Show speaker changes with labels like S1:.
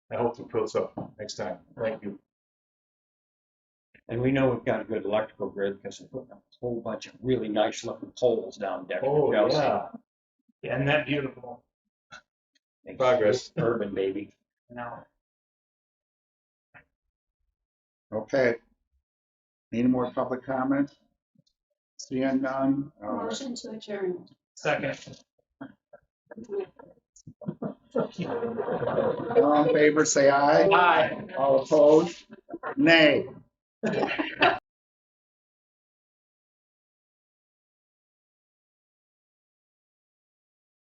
S1: I hope to put up next time. Thank you.
S2: And we know we've got a good electrical grid because they're putting up a whole bunch of really nice looking poles down Decker.
S1: Oh,
S2: Chelsea.
S1: yeah. Isn't that beautiful?
S2: Makes
S1: Progress.
S2: it Urban, baby.
S1: Now,
S3: Okay. Any more public comment? Seeing none, uh,
S4: Motion to adjourn.
S1: second.
S3: all in favor, say aye.
S1: Aye.
S3: All opposed? Nay.